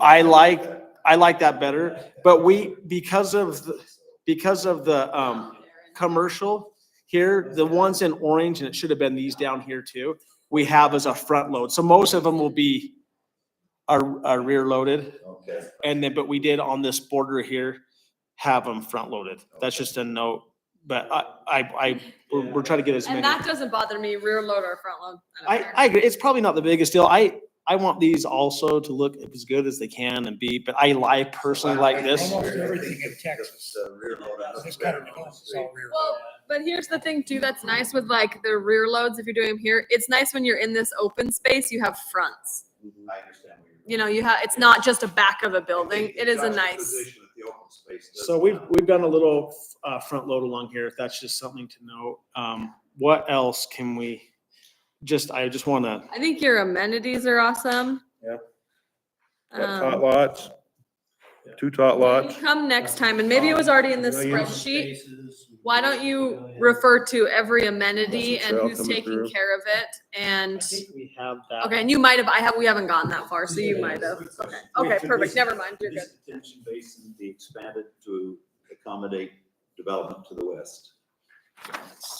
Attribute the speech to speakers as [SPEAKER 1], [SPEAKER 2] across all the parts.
[SPEAKER 1] I like, I like that better, but we, because of, the because of the, um, commercial here, the ones in orange, and it should have been these down here too, we have as a front load. So most of them will be are, are rear loaded.
[SPEAKER 2] Okay.
[SPEAKER 1] And then, but we did on this border here, have them front loaded. That's just a note, but I, I, I, we're, we're trying to get as many.
[SPEAKER 3] And that doesn't bother me, rear load or front load. don't
[SPEAKER 1] I,
[SPEAKER 3] care.
[SPEAKER 1] I agree. It's probably not the biggest deal. I, I want these also to look as good as they can and be, but I like personally like this.
[SPEAKER 4] Almost everything in Texas.
[SPEAKER 2] The rear load. I
[SPEAKER 4] It's
[SPEAKER 2] looked
[SPEAKER 4] got
[SPEAKER 2] at
[SPEAKER 4] a
[SPEAKER 2] it on the
[SPEAKER 4] nose, it's
[SPEAKER 2] street.
[SPEAKER 4] all rear.
[SPEAKER 3] Well, but here's the thing too, that's nice with like the rear loads, if you're doing them here, it's nice when you're in this open space, you have fronts.
[SPEAKER 2] I understand what you're.
[SPEAKER 3] You know, you have, it's not just a back of a building,
[SPEAKER 2] Taking
[SPEAKER 3] it is a nice.
[SPEAKER 2] juxtaposition of the open space does
[SPEAKER 1] So we've,
[SPEAKER 2] not-
[SPEAKER 1] we've done a little, uh, front load along here. If that's just something to note. Um, what else can we? Just, I just want to,
[SPEAKER 3] I think your amenities are awesome.
[SPEAKER 5] Yeah. Tot
[SPEAKER 3] Um,
[SPEAKER 5] lots, two tot lots.
[SPEAKER 3] Come next time, and maybe it was already in this spreadsheet, why don't you refer to every amenity and
[SPEAKER 5] Trail
[SPEAKER 3] who's
[SPEAKER 5] coming
[SPEAKER 3] taking
[SPEAKER 5] through.
[SPEAKER 3] care of it and,
[SPEAKER 1] we have that.
[SPEAKER 3] okay, and you might have, I have, we haven't gone that far, so you might have. Okay, okay, perfect, never mind, you're good.
[SPEAKER 2] East Detention basin be expanded to accommodate development to the west.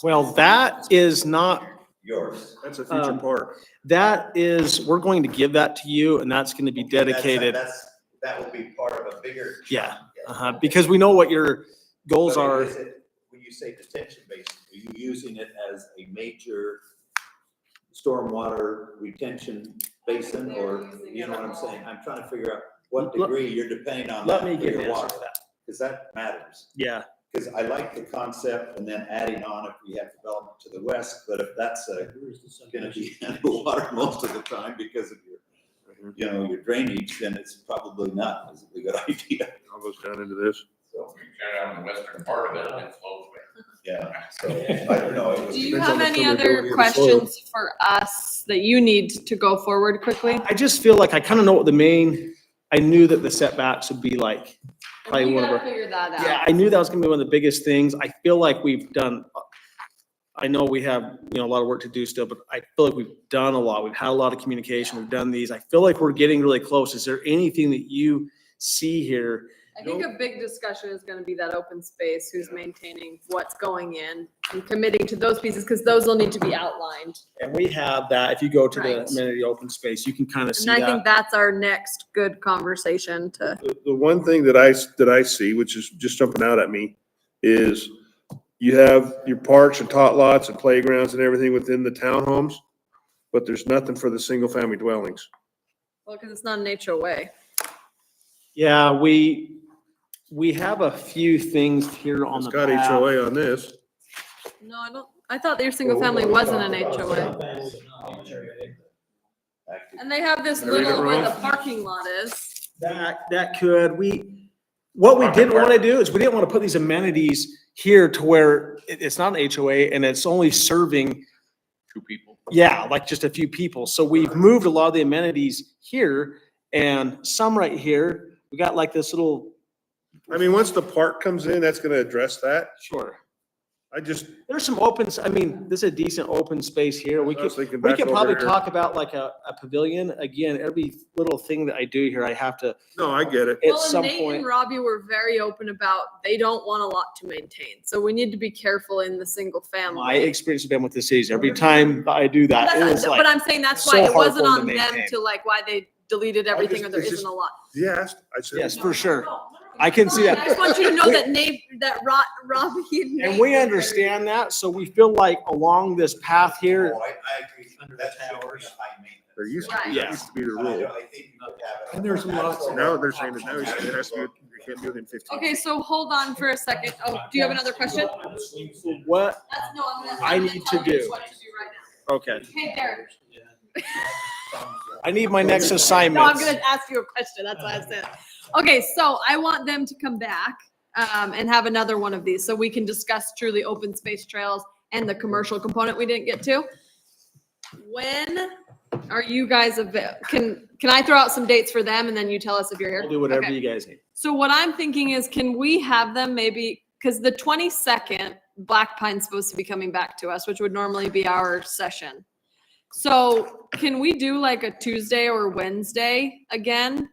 [SPEAKER 1] Well, that is not,
[SPEAKER 2] Yours.
[SPEAKER 5] That's a
[SPEAKER 1] Um,
[SPEAKER 5] future park.
[SPEAKER 1] that is, we're going to give that to you and that's going to be dedicated.
[SPEAKER 2] That's, that will be part of a bigger.
[SPEAKER 1] Yeah,
[SPEAKER 2] chunk, yes.
[SPEAKER 1] Uh-huh, because we know what your goals
[SPEAKER 2] But
[SPEAKER 1] are.
[SPEAKER 2] is it- When you say detention basin, are you using it as a major stormwater retention basin or, you know what I'm saying? I'm trying to figure out what
[SPEAKER 1] Let-
[SPEAKER 2] degree you're depending on that
[SPEAKER 1] Let me
[SPEAKER 2] for
[SPEAKER 1] get an
[SPEAKER 2] your
[SPEAKER 1] answer
[SPEAKER 2] water,
[SPEAKER 1] to that.
[SPEAKER 2] because that matters.
[SPEAKER 1] Yeah,
[SPEAKER 2] Because I like the concept and then adding on if we have development to the west, but if that's uh, gonna be underwater most of the time because of
[SPEAKER 1] Mm-hmm.
[SPEAKER 2] your, you know, your drainage, then it's probably not as a good idea,
[SPEAKER 5] All goes down into this.
[SPEAKER 2] so,
[SPEAKER 6] We got out in the western part of it and it flows way
[SPEAKER 2] yeah, so, I don't know. it
[SPEAKER 3] Do you
[SPEAKER 2] depends on
[SPEAKER 3] have
[SPEAKER 2] the
[SPEAKER 3] any
[SPEAKER 2] permeability of
[SPEAKER 3] other
[SPEAKER 2] the soil.
[SPEAKER 3] questions for us that you need to go forward quickly?
[SPEAKER 1] I just feel like I kind of know what the main, I knew that the setbacks would be like. Probably
[SPEAKER 3] You
[SPEAKER 1] one of
[SPEAKER 3] gotta
[SPEAKER 1] our-
[SPEAKER 3] figure that
[SPEAKER 1] Yeah,
[SPEAKER 3] out.
[SPEAKER 1] I knew that was gonna be one of the biggest things. I feel like we've done. I know we have, you know, a lot of work to do still, but I feel like we've done a lot. We've had a lot of communication. We've done these. I feel like we're getting really close. Is there anything that you see here?
[SPEAKER 3] I think a big discussion is gonna be that open space, who's maintaining, what's going in, and committing to those pieces, because those will need to be outlined.
[SPEAKER 1] And we have that. If you go to the
[SPEAKER 3] Right.
[SPEAKER 1] amenity open space, you can kind of see
[SPEAKER 3] And I think
[SPEAKER 1] that.
[SPEAKER 3] that's our next good conversation to,
[SPEAKER 5] The the one thing that I, s- that I see, which is just jumping out at me, is you have your parks and tot lots and playgrounds and everything within the townhomes, but there's nothing for the single-family dwellings.
[SPEAKER 3] well, because it's not an HOA.
[SPEAKER 1] Yeah, we, we have a few things here on
[SPEAKER 5] It's
[SPEAKER 1] the
[SPEAKER 5] got
[SPEAKER 1] path.
[SPEAKER 5] HOA on this.
[SPEAKER 3] No, I don't, I thought your single family wasn't an HOA. And they have this
[SPEAKER 5] Did I read it
[SPEAKER 3] little where the
[SPEAKER 5] wrong?
[SPEAKER 3] parking lot is.
[SPEAKER 1] That, that could, we, what we didn't want to do is we didn't want to put these amenities here to where it, it's not an HOA and it's only serving,
[SPEAKER 6] two people.
[SPEAKER 1] yeah, like just a few people. So we've moved a lot of the amenities here and some right here. We got like this little,
[SPEAKER 5] I mean, once the park comes in, that's gonna address that.
[SPEAKER 1] sure.
[SPEAKER 5] I just,
[SPEAKER 1] There's some opens, I mean, this is a decent open space here. We
[SPEAKER 5] I
[SPEAKER 1] could,
[SPEAKER 5] was thinking
[SPEAKER 1] we
[SPEAKER 5] back
[SPEAKER 1] could
[SPEAKER 5] over
[SPEAKER 1] probably
[SPEAKER 5] here.
[SPEAKER 1] talk about like a, a pavilion. Again, every little thing that I do here, I have to,
[SPEAKER 5] No, I get it.
[SPEAKER 1] at
[SPEAKER 3] Well,
[SPEAKER 1] some
[SPEAKER 3] and Nate and
[SPEAKER 1] point.
[SPEAKER 3] Robbie were very open about they don't want a lot to maintain, so we need to be careful in the single
[SPEAKER 1] My
[SPEAKER 3] family.
[SPEAKER 1] experience has been with the cities. Every time I do that, it
[SPEAKER 3] That's
[SPEAKER 1] is
[SPEAKER 3] not-
[SPEAKER 1] like.
[SPEAKER 3] But I'm saying that's
[SPEAKER 1] so
[SPEAKER 3] why it
[SPEAKER 1] hard
[SPEAKER 3] wasn't
[SPEAKER 1] for 'em
[SPEAKER 3] on
[SPEAKER 1] to
[SPEAKER 3] them
[SPEAKER 1] maintain.
[SPEAKER 3] to like why they deleted everything or
[SPEAKER 5] just-
[SPEAKER 3] there
[SPEAKER 5] it's
[SPEAKER 3] isn't a lot.
[SPEAKER 5] Yes, I said.
[SPEAKER 1] Yes, for sure. I can see that.
[SPEAKER 3] I just want you to know
[SPEAKER 1] We-
[SPEAKER 3] that Nate, that Ro- Robbie and Nate.
[SPEAKER 1] And
[SPEAKER 3] were
[SPEAKER 1] we
[SPEAKER 3] very-
[SPEAKER 1] understand that, so we feel like along this path here,
[SPEAKER 2] Oh, I, I agree. That should be a high maintenance.
[SPEAKER 5] There used
[SPEAKER 3] Right.
[SPEAKER 5] to, that used to be the
[SPEAKER 2] I don't-
[SPEAKER 5] rule.
[SPEAKER 2] I think you could have it.
[SPEAKER 4] And there's lots of-
[SPEAKER 5] Now they're saying that now you has to be, you can't do it in fifteen.
[SPEAKER 3] Okay, so hold on for a second. Oh, do you have another question?
[SPEAKER 1] what,
[SPEAKER 3] That's, no, I'm gonna.
[SPEAKER 1] I
[SPEAKER 3] I'm gonna
[SPEAKER 1] need
[SPEAKER 3] tell
[SPEAKER 1] to
[SPEAKER 3] you
[SPEAKER 1] do.
[SPEAKER 3] What to do right now.
[SPEAKER 1] okay,
[SPEAKER 3] Hey, Derek.
[SPEAKER 1] I need my next
[SPEAKER 3] No, I'm
[SPEAKER 1] assignment.
[SPEAKER 3] gonna ask you a question. That's why I said. Okay, so I want them to come back um, and have another one of these so we can discuss truly open space trails and the commercial component we didn't get to. When are you guys avail? Can can I throw out some dates for them and then you tell us if you're here?
[SPEAKER 1] I'll do whatever
[SPEAKER 3] Okay.
[SPEAKER 1] you guys need.
[SPEAKER 3] So what I'm thinking is, can we have them maybe, because the twenty-second, Black Pine's supposed to be coming back to us, which would normally be our session. So can we do like a Tuesday or Wednesday again?